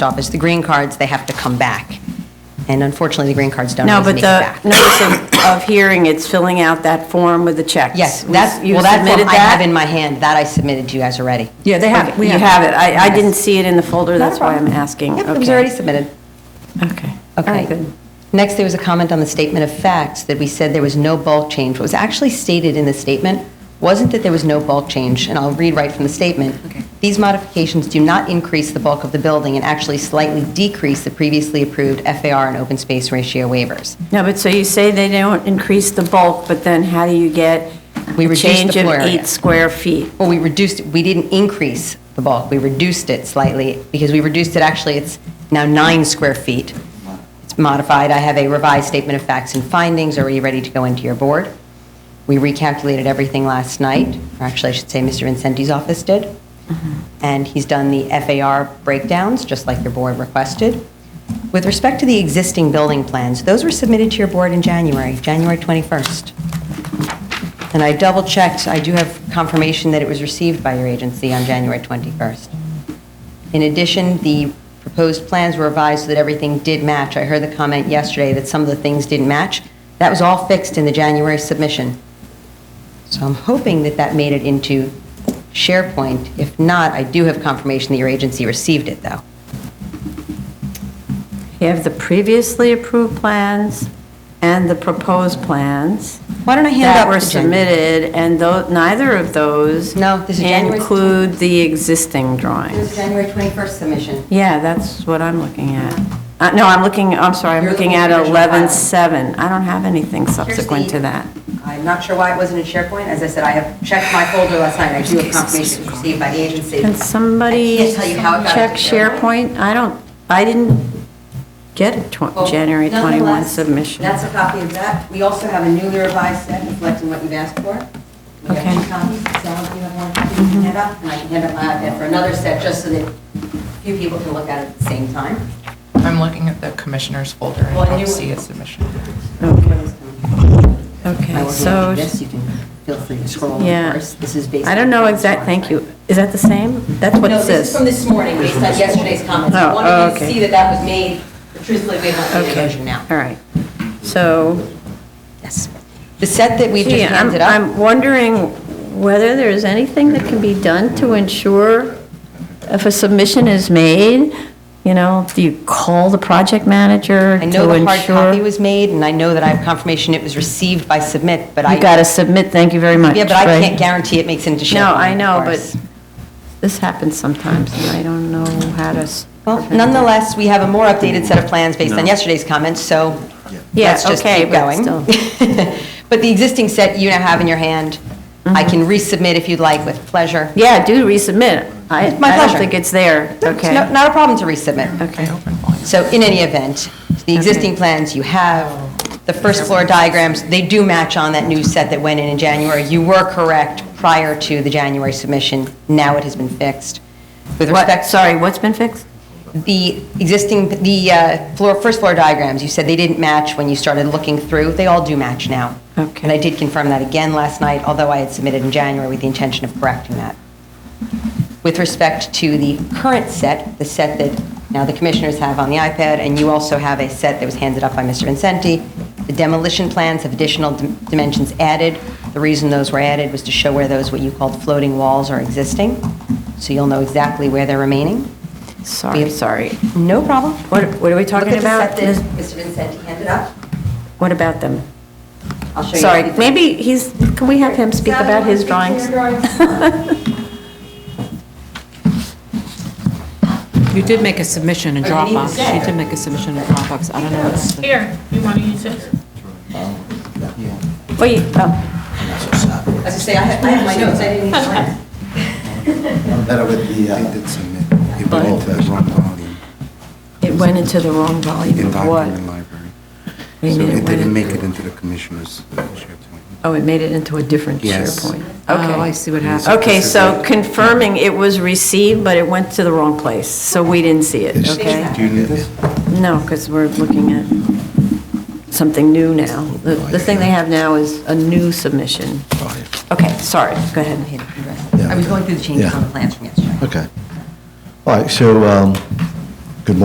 office, the green cards, they have to come back. And unfortunately, the green cards don't No, always but make it the back. notice of- of hearing, it's filling out that form with the checks. Yes, We- that's, you well, that form submitted I have in my hand, that I submitted to you guys already. Yeah, they have it. We You have it. have it. I, I Yes. didn't see it in the folder, Not a that's why I'm problem. asking. Yep, it was Okay. already submitted. Okay. All Okay. right, good. Next, there was a comment on the statement of facts that we said there was no bulk change. What was actually stated in the statement wasn't that there was no bulk change, and I'll read right from the statement. Okay. These modifications do not increase the bulk of the building and actually slightly decrease the previously approved FAR and open space ratio waivers. No, but so you say they don't increase the bulk, but then how do you get We a reduced the change of floor area. eight square feet? Well, we reduced, we didn't increase the bulk, we reduced it slightly, because we reduced it, actually, it's now nine square feet. It's modified, I have a revised statement of facts and findings, are you ready to go into your board? We recalculated everything last night, or actually, I should say, Mr. Vincenti's office did, and he's done the FAR breakdowns, just like your board requested. With respect to the existing building plans, those were submitted to your board in January, January 21st. And I double-checked, I do have confirmation that it was received by your agency on January 21st. In addition, the proposed plans were revised so that everything did match. I heard the comment yesterday that some of the things didn't match. That was all fixed in the January submission. So I'm hoping that that made it into SharePoint. If not, I do have confirmation that your agency received it, though. You have the previously approved plans and the proposed plans. Why don't I hand out That were the January? submitted, and tho, neither of those. No, this is January's- Include the existing It was drawings. January 21st submission. Yeah, that's what I'm looking at. Uh, No, I'm looking, I'm sorry, I'm You're looking looking at at the original filing. 11-7. I don't have anything Here's subsequent the- to that. I'm not sure why it wasn't in SharePoint. As I said, I have checked my folder last night, and I do have confirmation it was received by the agency. Can somebody I can't tell you how it got check into SharePoint. SharePoint? I don't, I didn't get a Well, tw- January 21 Oh, nonetheless, submission. That's a copy of that. We also have a newly revised set reflecting what you've asked for. We Okay. have two copies, Sal, if you have one, you can hand up, and I can hand up my iPad for another set, just so that a few people can look at it at the same time. I'm looking at the commissioner's folder. Well, I I don't knew- see a submission. I Okay, will so, hand you this, you can feel free to scroll, of Yeah. course. This is based I don't know on- exact, thank you. Is that the same? That's what No, it this is says? from this morning, based on yesterday's comments. I Oh, wanted you to okay. see that that was made, but truthfully, we haven't made a Okay. version now. All right. So, Yes. The set that we gee, just I'm, handed up, I'm wondering whether there is anything that can be done to ensure if a submission is made, you know, do you call the project manager to I ensure? know the hard copy was made, and I know that I have confirmation it was received by submit, but I... You got to submit, thank you very much. Yeah, but I right? can't guarantee it makes it into SharePoint. No, I know, of but course. this happens sometimes, and I don't know how to. s- Well, nonetheless, we have a more updated set of plans based on yesterday's comments, so Yeah, let's just okay, keep but going. still. But the existing set you now have in your hand, Mm-hmm. I can resubmit if you'd like with pleasure. Yeah, do resubmit. I, It's my I don't pleasure. think it's there, No, it's okay. no- Not a problem to resubmit. Okay. So in any event, the existing plans you have, the first floor diagrams, they do match on that new set that went in in January. You were correct prior to the January submission. Now it has been fixed. With What, respect, sorry, what's been fixed? the existing, the uh, floor, first floor diagrams, you said they didn't match when you started looking through. They all do match now. Okay. And I did confirm that again last night, although I had submitted in January with the intention of correcting that. With respect to the current set, the set that now the commissioners have on the iPad, and you also have a set that was handed up by Mr. Vincenti, the demolition plans have additional dim- dimensions added. The reason those were added was to show where those, what you called floating walls are existing, so you'll know exactly where they're remaining. Sorry, sorry. No problem. What, what are we talking about? Look at the Is- set that Mr. Vincenti handed up. What about them? I'll show you. Sorry, everything. maybe he's, can we have him speak Sally, about his you want to drawings? speak to your You did make a submission in Oh, you need to Dropbox. say. You did make a submission in Dropbox. I don't know. what's the- Here, you want to use this? Wait, oh, As I say, I have I have my notes, I didn't need to write. I'm better with the, uh, it went into the wrong volume it went into the wrong volume in of what? document library. What do you So mean it went in- didn't make it into the commissioner's uh, SharePoint. Oh, it made it into a different Yes. SharePoint. Oh, I Okay. see what happened. Okay, so confirming it was received, but it went to the wrong place, so we didn't see it, okay? Do you need this? No, because we're looking at something new now. The, Oh, the thing they have now is a new submission. Okay, sorry, go ahead. I was going through the changes on the plans from yesterday. Okay. All right, so um,